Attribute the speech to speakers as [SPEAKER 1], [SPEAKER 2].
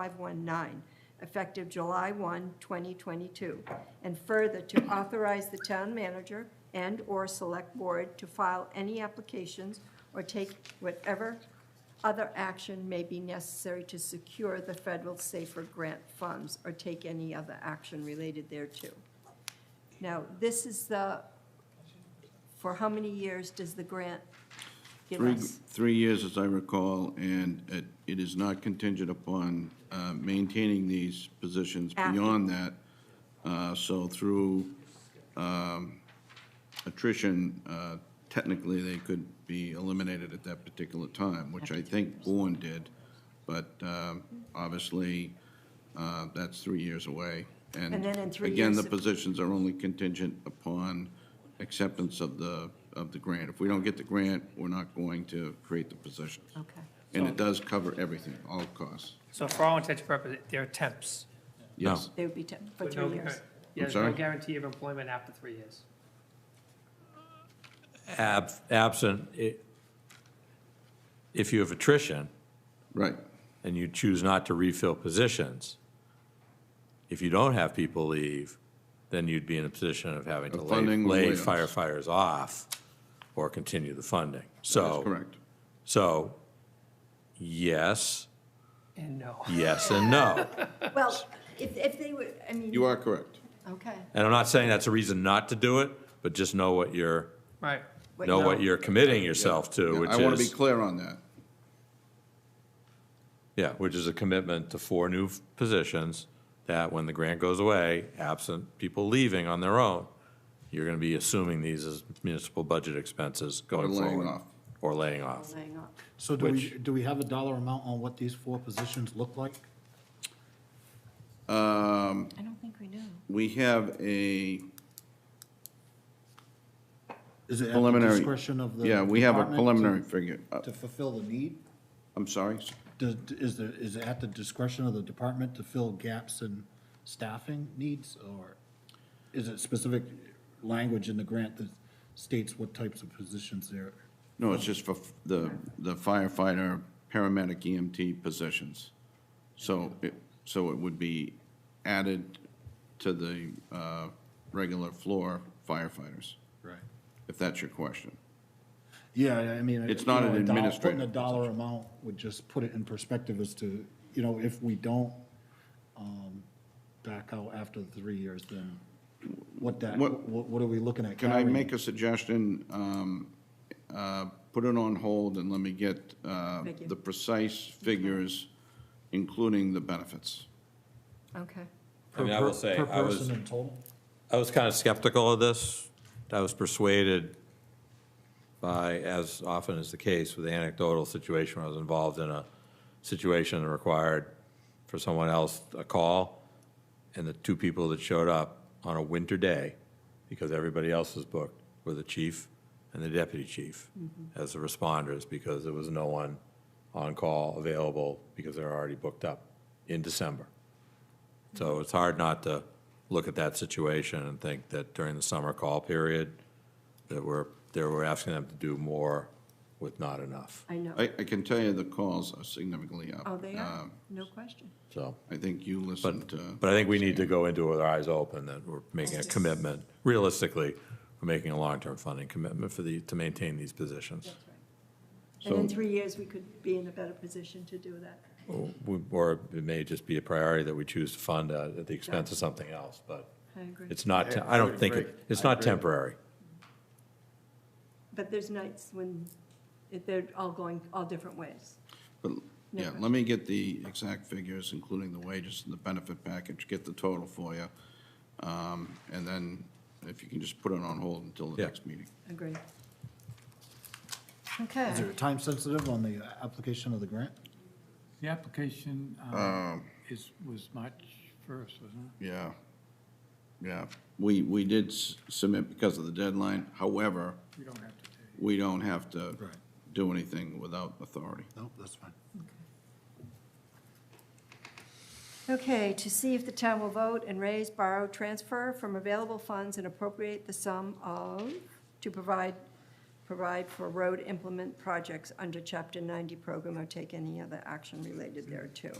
[SPEAKER 1] 2519, effective July 1, 2022. And further, to authorize the town manager and/or select board to file any applications or take whatever other action may be necessary to secure the federal safer grant funds or take any other action related thereto. Now, this is the, for how many years does the grant give
[SPEAKER 2] Three,
[SPEAKER 1] us?
[SPEAKER 2] three years, as I recall, and it- it is not contingent upon uh, maintaining these positions
[SPEAKER 1] After.
[SPEAKER 2] beyond that. Uh, So through um, attrition, uh, technically, they could be eliminated at that particular time, which I think Bourne did. But um, obviously, uh, that's three years away.
[SPEAKER 1] And then in three
[SPEAKER 2] Again,
[SPEAKER 1] years
[SPEAKER 2] the
[SPEAKER 1] if-
[SPEAKER 2] positions are only contingent upon acceptance of the, of the grant. If we don't get the grant, we're not going to create the positions.
[SPEAKER 1] Okay.
[SPEAKER 2] And it does cover everything, all costs.
[SPEAKER 3] So for all intents and purposes, they're temps.
[SPEAKER 2] Yes.
[SPEAKER 1] They would be, temp- for
[SPEAKER 3] with no
[SPEAKER 1] three years.
[SPEAKER 3] guar- Yeah, there's
[SPEAKER 2] sorry?
[SPEAKER 3] no guarantee of employment after three years.
[SPEAKER 4] ab- absent, i- if you have attrition
[SPEAKER 2] Right,
[SPEAKER 4] and you choose not to refill positions, if you don't have people leave, then you'd be in a position of having to
[SPEAKER 2] Of
[SPEAKER 4] lay
[SPEAKER 2] funding or
[SPEAKER 4] lay
[SPEAKER 2] layoffs.
[SPEAKER 4] firefighters off or continue the funding.
[SPEAKER 2] that's
[SPEAKER 4] So,
[SPEAKER 2] correct.
[SPEAKER 4] so, yes,
[SPEAKER 3] And no.
[SPEAKER 4] yes, and no.
[SPEAKER 1] Well, if, if they would, I mean.
[SPEAKER 2] You are correct.
[SPEAKER 1] Okay.
[SPEAKER 4] And I'm not saying that's a reason not to do it, but just know what you're,
[SPEAKER 3] Right.
[SPEAKER 1] What
[SPEAKER 4] know
[SPEAKER 1] you-
[SPEAKER 4] what you're committing yourself to, which
[SPEAKER 2] I want to be
[SPEAKER 4] is,
[SPEAKER 2] clear on that.
[SPEAKER 4] yeah, which is a commitment to four new f- positions that when the grant goes away, absent people leaving on their own, you're going to be assuming these as municipal budget expenses going
[SPEAKER 2] laying
[SPEAKER 4] forward.
[SPEAKER 2] off.
[SPEAKER 4] Or laying off.
[SPEAKER 1] Hang on.
[SPEAKER 5] So do we,
[SPEAKER 4] Which-
[SPEAKER 5] do we have a dollar amount on what these four positions look like?
[SPEAKER 1] I don't think we do.
[SPEAKER 2] Um, We have a
[SPEAKER 5] Is it at the
[SPEAKER 2] preliminary.
[SPEAKER 5] discretion of the?
[SPEAKER 2] Yeah, we have a
[SPEAKER 5] department to-
[SPEAKER 2] preliminary figure. Uh,
[SPEAKER 5] To fulfill the need?
[SPEAKER 2] I'm sorry?
[SPEAKER 5] Does, is the, is it at the discretion of the department to fill gaps in staffing needs? Or is it specific language in the grant that states what types of positions there?
[SPEAKER 2] No, it's just for f- the the firefighter, paramedic, EMT positions. So, it- so it would be added to the uh, regular floor firefighters,
[SPEAKER 5] Right.
[SPEAKER 2] if that's your question.
[SPEAKER 5] Yeah, I I mean.
[SPEAKER 2] It's
[SPEAKER 5] you
[SPEAKER 2] not
[SPEAKER 5] know,
[SPEAKER 2] an
[SPEAKER 5] a dollar-
[SPEAKER 2] administrative
[SPEAKER 5] Putting a dollar amount would just put it in perspective as to, you know, if we don't um, back out after the three years, then what that,
[SPEAKER 2] What-
[SPEAKER 5] what, what are we looking at?
[SPEAKER 2] Can I
[SPEAKER 5] carrying?
[SPEAKER 2] make a suggestion? Um, uh, Put it on hold and let me get uh,
[SPEAKER 1] Thank you.
[SPEAKER 2] the precise figures, including the benefits.
[SPEAKER 1] Okay.
[SPEAKER 4] I mean, I
[SPEAKER 5] Per-
[SPEAKER 4] will say,
[SPEAKER 5] Per
[SPEAKER 4] I was-
[SPEAKER 5] person in total?
[SPEAKER 4] I was kind of skeptical of this. I was persuaded by, as often is the case with the anecdotal situation, when I was involved in a situation that required for someone else a call, and the two people that showed up on a winter day, because everybody else was booked, were the chief and the deputy chief as the responders, because there was no one on call available, because they're already booked up in December. So it's hard not to look at that situation and think that during the summer call period, that we're, that we're asking them to do more with not enough.
[SPEAKER 1] I know.
[SPEAKER 2] I, I can tell you the calls are significantly up.
[SPEAKER 1] Oh, they are,
[SPEAKER 2] Um,
[SPEAKER 1] no question.
[SPEAKER 4] So,
[SPEAKER 2] I think you listened to.
[SPEAKER 4] but I think we need to go into it with our eyes open, that we're making a commitment, realistically, we're making a long-term funding commitment for the, to maintain these positions.
[SPEAKER 1] And in
[SPEAKER 2] So-
[SPEAKER 1] three years, we could be in a better position to do that.
[SPEAKER 4] We- Or it may just be a priority that we choose to fund uh, at the expense of something else, but
[SPEAKER 1] I agree.
[SPEAKER 4] it's not, te- I don't think, it- it's not temporary.
[SPEAKER 1] But there's nights when it- they're all going all different ways.
[SPEAKER 2] But, yeah,
[SPEAKER 1] question.
[SPEAKER 2] let me get the exact figures, including the wages and the benefit package, get the total for you. Um, And then if you can just put it on hold until the
[SPEAKER 4] Yeah.
[SPEAKER 2] next meeting.
[SPEAKER 1] Agreed.
[SPEAKER 5] Is
[SPEAKER 1] Okay.
[SPEAKER 5] there time sensitive on the application of the grant?
[SPEAKER 6] The application um, is, was March 1st, wasn't it?
[SPEAKER 2] Yeah, yeah. We, we did s- submit because of the deadline. However,
[SPEAKER 6] We don't have to take.
[SPEAKER 2] we don't have to
[SPEAKER 5] Right.
[SPEAKER 2] do anything without authority.
[SPEAKER 5] No, that's fine.
[SPEAKER 1] Okay, to see if the town will vote and raise, borrow, transfer from available funds and appropriate the sum of, to provide, provide for road implement projects under Chapter 90 program or take any other action related thereto.